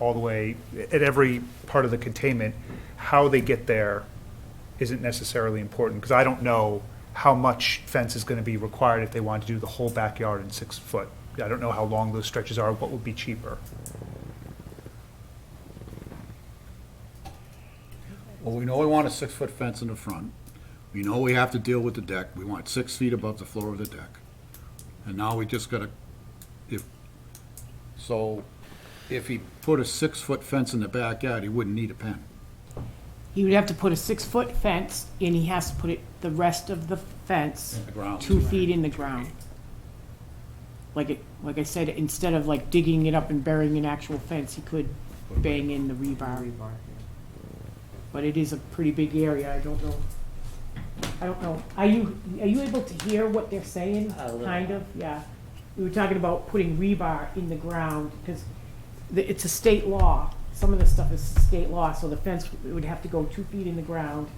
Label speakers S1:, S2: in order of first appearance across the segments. S1: all the way, at every part of the containment, how they get there isn't necessarily important, because I don't know how much fence is gonna be required if they want to do the whole backyard in six foot. I don't know how long those stretches are, what would be cheaper.
S2: Well, we know we want a six-foot fence in the front. We know we have to deal with the deck. We want six feet above the floor of the deck. And now we just gotta, if, so if he put a six-foot fence in the backyard, he wouldn't need a pen.
S3: He would have to put a six-foot fence, and he has to put it, the rest of the fence.
S2: the ground.
S3: Two feet in the ground. Like it, like I said, instead of like digging it up and burying an actual fence, he could bang in the rebar. But it is a pretty big area, I don't know. I don't know, are you, are you able to hear what they're saying?
S4: A little.
S3: Kind of, yeah. We were talking about putting rebar in the ground, because the- it's a state law. Some of this stuff is state law, so the fence would have to go two feet in the ground.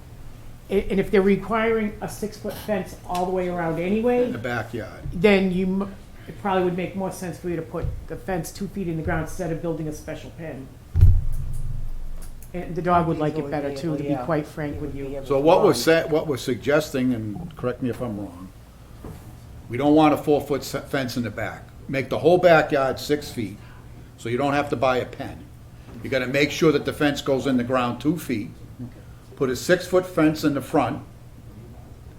S3: A- And if they're requiring a six-foot fence all the way around
S2: In the
S3: anyway,
S2: backyard.
S3: then you, m- it probably would make more sense for you to put the fence two feet in the ground instead of building a special pen. And the dog would like it better too, to be quite frank with you.
S2: So what we're sa- what we're suggesting, and correct me if I'm wrong, we don't want a four-foot se- fence in the back. Make the whole backyard six feet, so you don't have to buy a pen. You gotta make sure that the fence goes in the ground two feet. Put a six-foot fence in the front,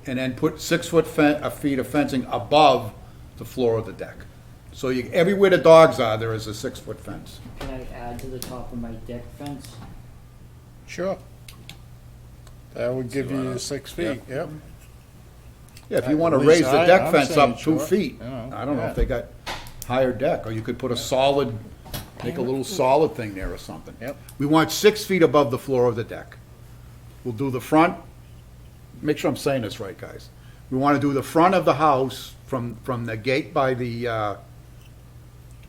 S2: and then put six-foot fen, a feet of fencing above the floor of the deck. So you, everywhere the dogs are, there is a six-foot fence.
S4: Can I add to the top of my deck fence?
S5: Sure. That would give
S2: uh,
S5: you six feet, yep.
S2: Yeah, if you want to
S5: At
S2: raise
S5: least
S2: the
S5: I-
S2: deck
S5: I'm
S2: fence
S5: saying
S2: up two
S5: sure,
S2: feet,
S5: you know,
S2: I don't know
S5: yeah.
S2: if they got higher deck, or you could put a solid, make a little solid thing there or something.
S5: Yep.
S2: We want six feet above the floor of the deck. We'll do the front, make sure I'm saying this right, guys. We want to do the front of the house from, from the gate by the, uh,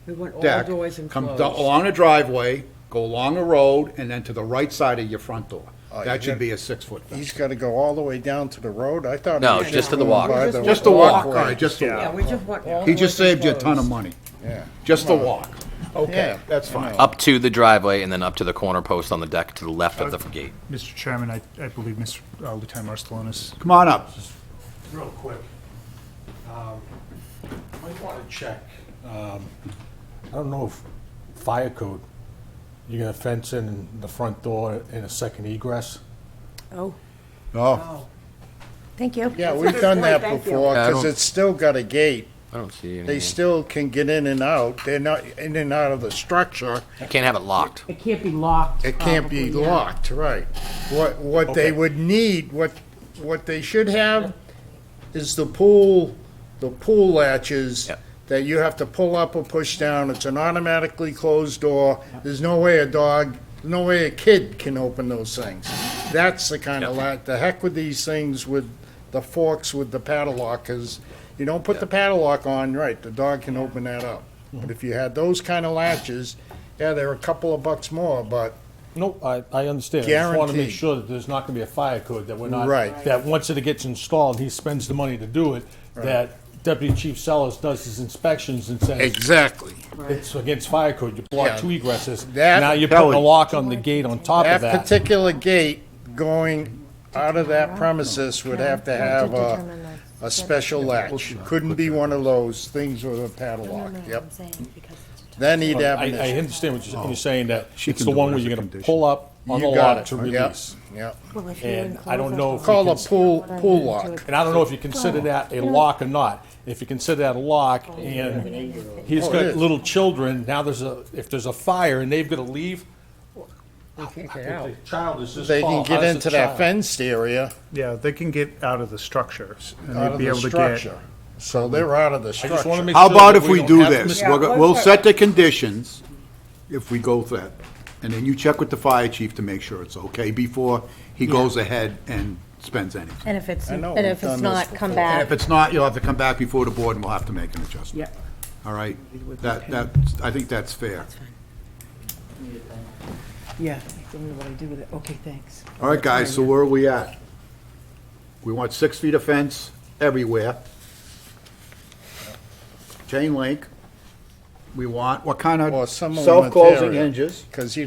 S6: We want all
S2: deck.
S6: doors enclosed.
S2: Come do- along the driveway, go along the road, and then to the right side of your front door.
S5: Oh,
S2: That
S5: you
S2: should
S5: got-
S2: be a six-foot fence.
S5: He's gotta go all the way down to the road, I thought. he
S7: No,
S5: was
S7: just to the
S5: going
S7: walk.
S5: by
S2: Just the walk, all
S5: walkway.
S2: right, just the
S1: Yeah.
S6: Yeah,
S2: walk.
S6: we just want. all
S2: He just
S6: doors
S2: saved you a ton of
S6: enclosed.
S2: money.
S5: Yeah.
S2: Just the walk.
S5: Yeah.
S2: Okay, that's fine.
S7: Up to the driveway and then up to the corner post on the deck to the left of the gate.
S1: Mr. Chairman, I, I believe Mr. uh, Lieutenant Marstelonis.
S2: Come on up.
S8: Real quick, um, might want to check, um, I don't know if fire code, you're gonna fence in the front door and a second egress?
S6: Oh,
S2: Oh,
S6: thank you.
S5: Yeah, we've done that
S6: Thank you.
S5: before,
S7: Yeah, I
S5: cause
S7: don't-
S5: it's still got a gate.
S7: I don't see
S5: They
S7: any.
S5: still can get in and out. They're not in and out of the structure.
S7: You can't have it locked.
S3: It can't be locked.
S5: It can't be
S3: probably, yeah.
S5: locked, right. What, what they would need, what, what they should have is the pool, the pool latches
S7: Yep.
S5: that you have to pull up or push down. It's an automatically closed door. There's no way a dog, no way a kid can open those things. That's the kind of latch, the heck with these things with the forks with the padlock, because you don't put the padlock on, right, the dog can open that up. But if you had those kind of latches, yeah, they're a couple of bucks more, but
S8: No, I, I understand. I just want to
S5: Guaranteed.
S8: make sure that there's not going to be a fire code, that we're not.
S5: Right.
S8: That once it gets installed, he spends the money to do it, that Deputy Chief Sellers does his inspections and says,
S5: Exactly.
S8: it's against fire code, you block
S5: Yeah.
S8: two egresses.
S5: That-
S8: Now you're putting a
S2: Kelly.
S8: lock on the gate on top
S5: That
S8: of that.
S5: particular gate going out of that premises would have to have a,
S6: Determine the-
S5: a special latch. Couldn't be one of those things with a padlock,
S6: Determine what
S5: yep.
S6: I'm saying, because it's determined.
S5: Then he'd
S8: I,
S5: have an
S8: I
S5: issue.
S8: understand what
S5: Oh.
S8: you're, you're saying, that
S2: She
S8: it's
S2: can
S8: the
S2: do
S8: one
S2: it
S8: where
S2: as a
S8: you're going to
S2: condition.
S8: pull up on the
S5: You got
S8: lot
S5: it.
S8: to
S5: Yep,
S8: release.
S5: Yep,
S6: Well, if you
S8: And I
S6: enclose
S8: don't
S6: us
S8: know
S6: all-
S8: if we
S5: Call a
S8: can-
S5: pool,
S6: What I'm
S5: pool
S6: gonna do
S5: lock.
S6: is-
S8: And I don't know if you consider that a lock or not. If you consider that a lock and he's
S5: Oh, it
S8: got
S5: is.
S8: little children, now there's a, if there's a fire and they've got to leave. the Child is just.
S5: They can
S8: tall,
S5: get
S8: how's the
S5: into that
S8: child?
S5: fenced area,
S1: Yeah, they can get out of the structure. and
S5: out
S1: they'd
S5: of
S1: be
S5: the
S1: able to get-
S5: structure. So they're out of the
S8: I just want to
S5: structure.
S8: make
S2: How
S8: sure.
S2: about
S8: that
S2: if we
S8: don't
S2: do
S8: have to-
S2: this?
S6: Yeah,
S2: We'll, go-
S6: let's
S2: we'll
S6: have-
S2: set the conditions if we go with that, and then you check with the fire chief to make sure it's okay before he goes ahead and spends anything.
S9: And if it's,
S5: I know,
S9: and
S5: we've
S9: if
S5: done
S9: it's
S5: this
S9: not, come
S5: before.
S2: And
S9: back.
S2: if it's not, you'll have to come back before the board and we'll have to make an adjustment.
S3: Yeah.
S2: All right? That, that, I think that's fair.
S6: Yeah, I don't know what I do with it. Okay, thanks.
S2: All right, guys, so where are we at? We want six feet of fence everywhere. Chain link. we want, what kind of
S5: Or some of them are
S2: self-closing
S5: there.
S2: hinges.
S5: Because you